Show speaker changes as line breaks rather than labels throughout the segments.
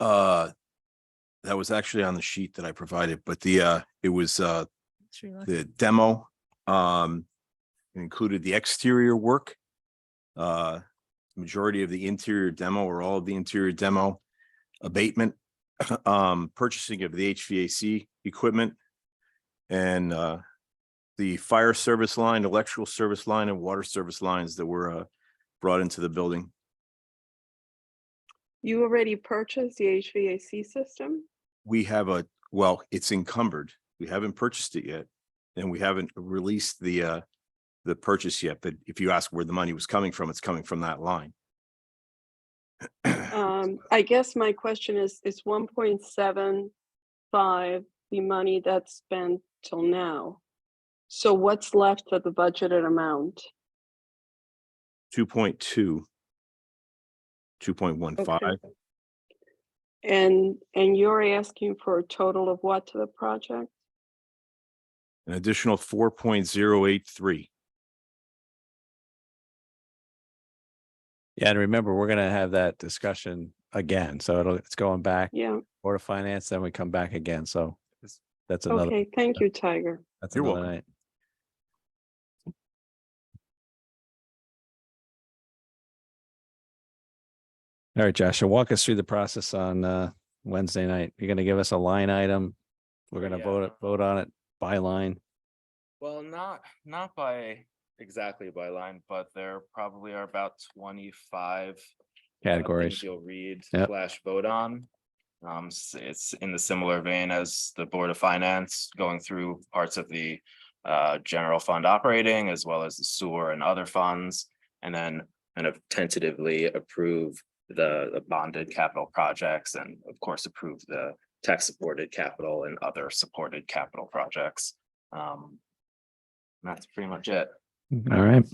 Uh, that was actually on the sheet that I provided, but the, uh, it was, uh,
Sri Lanka.
the demo, um, included the exterior work. Uh, majority of the interior demo or all of the interior demo abatement, um, purchasing of the HVAC equipment and, uh, the fire service line, electrical service line and water service lines that were, uh, brought into the building.
You already purchased the HVAC system?
we have a, well, it's encumbered. We haven't purchased it yet. And we haven't released the uh, the purchase yet, but if you ask where the money was coming from, it's coming from that line.
Um, I guess my question is, is one point seven five the money that's spent till now? So what's left of the budgeted amount?
Two point two. Two point one
Okay.
five,
And, and you're asking for a total of what to the project?
an additional four point zero eight three.
Yeah, and remember, we're gonna have that discussion again. So it'll, it's going back,
Yeah,
Board of Finance, then we come back again. So it's- that's another,
okay, thank you, Tiger.
that's
You're
another
welcome.
night. All right, Joshua, walk us through the process on uh Wednesday night. You're gonna give us a line item. We're gonna
Yeah.
vote, it- vote on it by line.
Well, not, not by exactly by line, but there probably are about twenty-five. uh,
Categories.
things You'll read
Yep.
slash vote on. Um, s- it's in the similar vein as the Board of Finance going through parts of the uh, general fund operating as well as the sewer and other funds. And then kind of tentatively approve the the bonded capital projects and of course approve the tax-supported capital and other supported capital projects. Um, and That's pretty much it.
All right.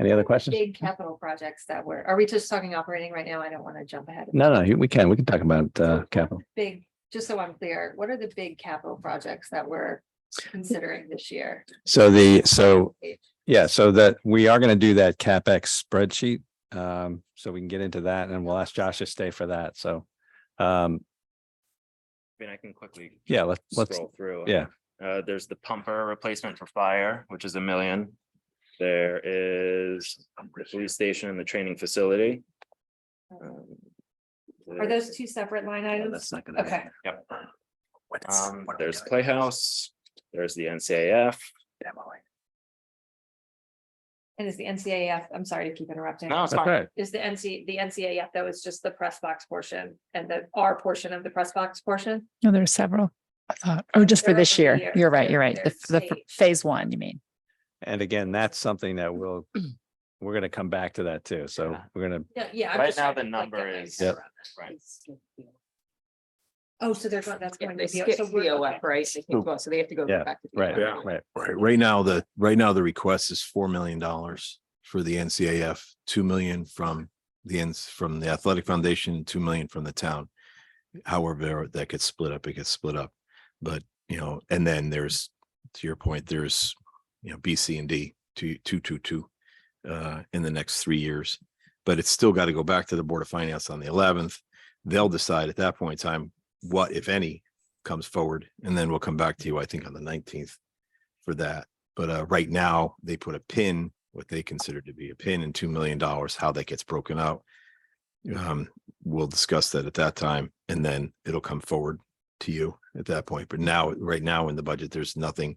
Any other questions?
big capital projects that were, are we just talking operating right now? I don't want to jump ahead. of
No,
you.
no, you- we can, we can talk about
So
uh
what
capital.
Big, just so I'm clear, what are the big capital projects that we're considering this year?
So the, so Yeah, so that we are going to do that CapEx spreadsheet. Um, so we can get into that and we'll ask Josh to stay for that. So, um,
I mean, I can quickly
yeah, let's, let's,
scroll through.
yeah.
Uh, there's the pumper replacement for fire, which is a million. There is the police station and the training facility. Um,
Are those two separate line items?
not gonna.
Okay,
Yep,
What is-
um,
what are we
there's
doing?
Playhouse, there's the NCAF.
and is the NCAF, I'm sorry to keep interrupting.
No, it's
That's
fine.
right.
Is the NC, the NCAF, that was just the press box portion and the R portion of the press box portion?
No, there are several. I thought, oh, just for
They're
this
over
year.
here.
You're right,
They're-
you're right. The, f- the f-
they're staged.
phase one, you mean?
And again, that's something that we'll, we're going to come back to that too. So
Yeah.
we're going to,
Yeah, Yeah. I'm
Right
just
now
trying to,
the
like, get
number
my
is-
head
Yep.
around this.
Right.
Oh, so they're going, that's
Yeah,
going
they
to be.
skip
so we're- okay.
VOF, right? They
Ooh.
keep going, so they have to go
Yeah,
back to.
right,
VOF.
right.
Right, right now, the, right now, the request is four million dollars for the NCAF, two million from the ends, from the Athletic Foundation, and two million from the town. However, that gets split up, it gets split up, but, you know, and then there's, to your point, there's, you know, B, C, and D, two, two, two, two. Uh, in the next three years, but it's still got to go back to the Board of Finance on the eleventh. They'll decide at that point in time, what, if any, comes forward, and then we'll come back to you, I think, on the nineteenth for that. But uh, right now, they put a pin, what they consider to be a pin in two million dollars, how that gets broken out. Um, we'll discuss that at that time and then it'll come forward to you at that point. But now, right now in the budget, there's nothing.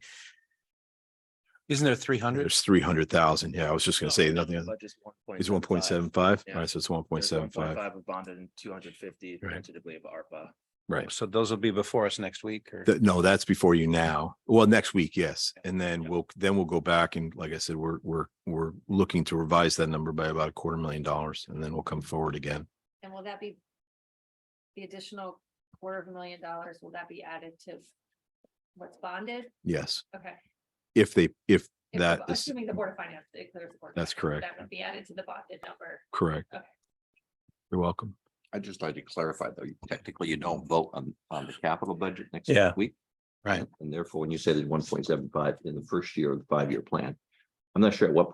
Isn't there three hundred?
There's three hundred thousand. Yeah, I was just
No,
gonna say
no,
nothing.
the
other-
budget's
It's one point seven five.
Yeah.
All right, so it's one point
There's
seven five.
1.5 of bonded and two hundred fifty
Right.
tentatively of ARPA.
Right.
So those will be before us next week or?
Th- no, that's before you now. Well, next week, yes. And then
Yeah.
we'll, then we'll go back and like I said, we're, we're, we're looking to revise that number by about a quarter million dollars and then we'll come forward again.
And will that be? The additional quarter of a million dollars, will that be added to? What's bonded?
Yes.
Okay.
If they, if
If the
that
bo-
is
Assuming the board of finance declares. the Board of
That's
Finance,
correct.
That would be added to the bonded number.
correct.
Okay.
You're welcome.
I'd just like to clarify, though, you- technically you don't vote on, on the capital budget next
Yeah.
week.
Right.
And therefore, when you said it's one point seven five in the first year of the five-year plan, I'm not sure at what point